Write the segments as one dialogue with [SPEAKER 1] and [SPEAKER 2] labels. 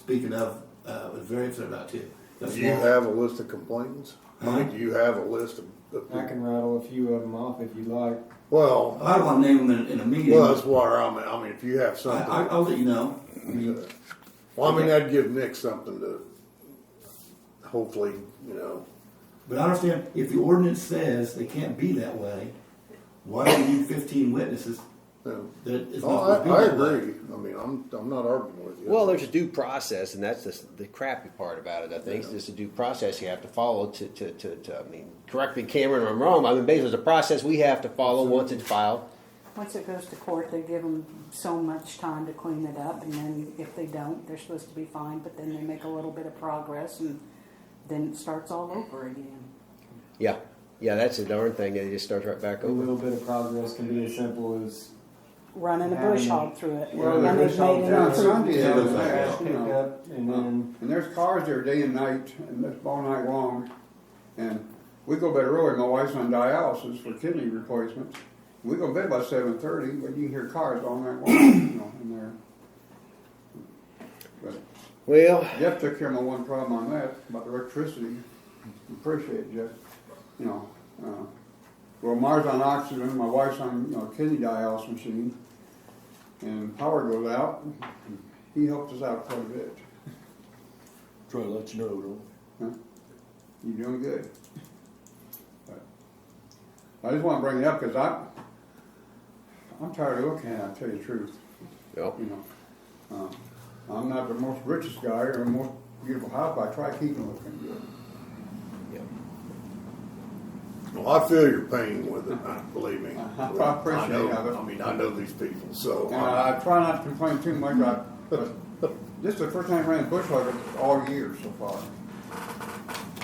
[SPEAKER 1] speaking of, uh, was very upset about too. That's
[SPEAKER 2] Do you
[SPEAKER 1] wrong.
[SPEAKER 2] have a list of complainants?
[SPEAKER 1] Huh?
[SPEAKER 2] Do you have a list of, of
[SPEAKER 3] I
[SPEAKER 2] people?
[SPEAKER 3] can rattle a few of them off if you like.
[SPEAKER 2] Well,
[SPEAKER 1] I don't want to name them in, in a meeting.
[SPEAKER 2] well, that's why I'm, I mean, if you have
[SPEAKER 1] I, I,
[SPEAKER 2] something,
[SPEAKER 1] I'll let you know. I mean,
[SPEAKER 2] well, I mean, that'd give Nick something to, hopefully, you know,
[SPEAKER 1] But I understand if the ordinance says they can't be that way, why do you need 15 witnesses
[SPEAKER 2] you
[SPEAKER 1] that it's
[SPEAKER 2] know.
[SPEAKER 1] not
[SPEAKER 2] oh, I,
[SPEAKER 1] supposed
[SPEAKER 2] I
[SPEAKER 1] to be that way?
[SPEAKER 2] agree. I mean, I'm, I'm not arguing with you.
[SPEAKER 4] Well, there's a due process, and that's the, the crappy part about it. I think there's a due process you have to follow to, to, to, to I mean, correct me, Cameron, if I'm wrong. I mean, basically, it's a process we have to follow once it's filed.
[SPEAKER 5] Once it goes to court, they give them so much time to clean it up, and then if they don't, they're supposed to be fined, but then they make a little bit of progress, and then it starts all over again.
[SPEAKER 4] Yeah, yeah, that's a darn thing. It just starts right back
[SPEAKER 3] A
[SPEAKER 4] over.
[SPEAKER 3] little bit of progress can be as simple as
[SPEAKER 5] Running a bush hog through it.
[SPEAKER 6] Well, the
[SPEAKER 5] And they've
[SPEAKER 6] bush hog
[SPEAKER 5] made an
[SPEAKER 6] down
[SPEAKER 5] improvement.
[SPEAKER 6] Sunday,
[SPEAKER 1] Yeah,
[SPEAKER 6] that was
[SPEAKER 1] it looks
[SPEAKER 6] last,
[SPEAKER 3] pick
[SPEAKER 6] you know.
[SPEAKER 3] up and then
[SPEAKER 6] And there's cars there day and night, and that's all night long. And we go to bed early, my wife's on dialysis for kidney replacements. We go to bed by seven thirty, but you can hear cars all night long, you know, in there. But
[SPEAKER 4] Well,
[SPEAKER 6] Jeff took care of my one problem on that, about the electricity. Appreciate it, Jeff, you know, uh, well, Mars on oxygen, my wife's on, you know, kidney dialysis machine. And power goes out, he helped us out quite a bit.
[SPEAKER 7] Try to let you know, though.
[SPEAKER 6] You're doing good. But I just want to bring it up because I, I'm tired of looking at it, I'll tell you the truth,
[SPEAKER 4] no.
[SPEAKER 6] you know. Um, I'm not the most richest guy or the most beautiful house, but I try keeping looking good.
[SPEAKER 4] yeah.
[SPEAKER 2] Well, I feel your pain with it, I- believe me.
[SPEAKER 6] I appreciate
[SPEAKER 2] know-
[SPEAKER 6] it. Uh-huh.
[SPEAKER 2] I mean, I know these people, so.
[SPEAKER 6] And I, I try not to complain too much, I, but this is the first time I ran a bush hog all year so far.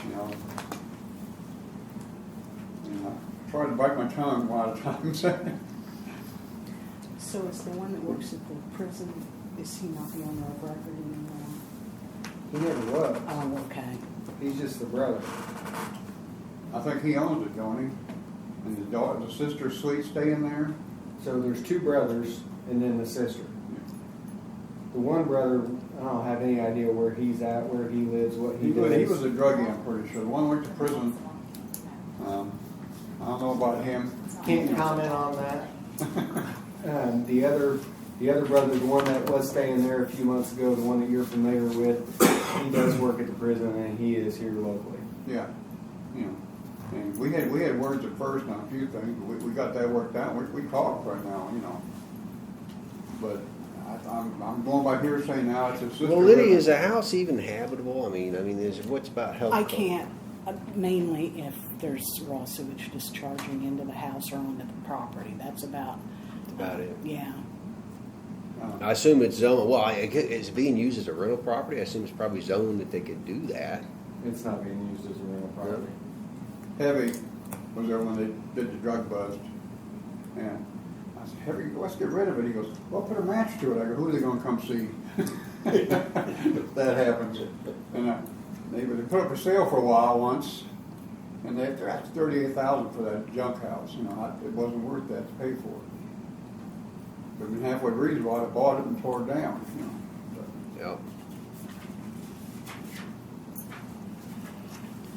[SPEAKER 6] You know. And I try to bite my tongue a lot of times.
[SPEAKER 5] So is the one that works at the prison, is he not the owner of record anymore?
[SPEAKER 3] he never was.
[SPEAKER 5] Oh, okay.
[SPEAKER 3] He's just the brother.
[SPEAKER 6] I think he owns it, don't he? And the daughter, the sister, sweet stay in there.
[SPEAKER 3] So there's two brothers and then the sister. The one brother, I don't have any idea where he's at, where he lives, what he,
[SPEAKER 6] He was, he
[SPEAKER 3] does.
[SPEAKER 6] was a druggie, I'm pretty sure. The one went to prison. Um, I don't know about him.
[SPEAKER 3] Can't comment on that. Um, the other, the other brother, the one that was staying there a few months ago, the one that you're familiar with, he does work at the prison and he is here locally.
[SPEAKER 6] Yeah, you know. And we had we had words at first on a few things, but we, we got that worked out. We, we talk right now, you know. But I, I'm I'm going by hearsay now. It's his sister.
[SPEAKER 4] Well, Liddy,
[SPEAKER 6] living.
[SPEAKER 4] is a house even habitable? I mean, I mean, is what's about health?
[SPEAKER 5] I
[SPEAKER 4] code?
[SPEAKER 5] can't, uh, mainly if there's raw sewage discharging into the house or onto the property, that's about,
[SPEAKER 4] That's about it.
[SPEAKER 5] yeah.
[SPEAKER 6] Uh,
[SPEAKER 4] I assume it's zoned. Well, I, it's being used as a rental property. I assume it's probably zoned that they could do that.
[SPEAKER 3] It's not being used as a rental property.
[SPEAKER 6] Heavy was there when they did the drug bust. And I said, Heavy, let's get rid of it. He goes, well, put a match to it. I go, who are they gonna come see? That happens. And I, they, they put up for sale for a while once, and they, they're at thirty-eight thousand for that junk house, you know, I- it wasn't worth that to pay for it. But when halfway reasonable, I'd have bought it and tore it down, you know. But-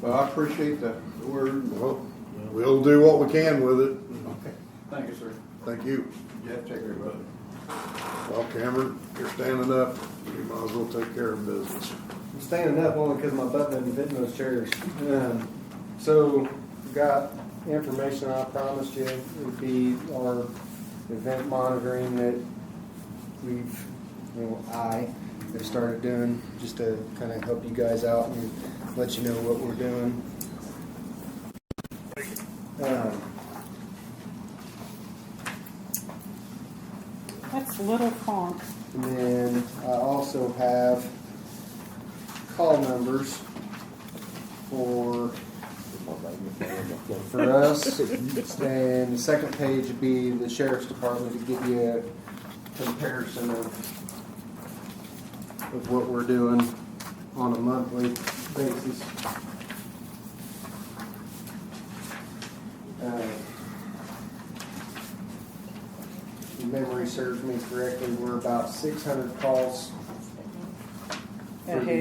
[SPEAKER 4] Yeah.
[SPEAKER 6] But I appreciate the the word.
[SPEAKER 2] Well, we'll do what we can with it.
[SPEAKER 6] Okay, thank you, sir.
[SPEAKER 2] Thank you.
[SPEAKER 6] Jeff, take care of it.
[SPEAKER 2] Well, Cameron, you're standing up. You might as well take care of business.
[SPEAKER 3] I'm standing up only because my butt doesn't fit in those chairs. Um, so, got information I promised you would be our event monitoring that we've, you know, I have started doing just to kind of help you guys out and let you know what we're doing. Um,
[SPEAKER 5] That's Little Funk.
[SPEAKER 3] And then I also have call numbers for, for us. And the second page would be the sheriff's department to give you a comparison of, of what we're doing on a monthly basis. Uh, if memory serves me correctly, we're about six hundred calls
[SPEAKER 6] for the-
[SPEAKER 5] Ahead.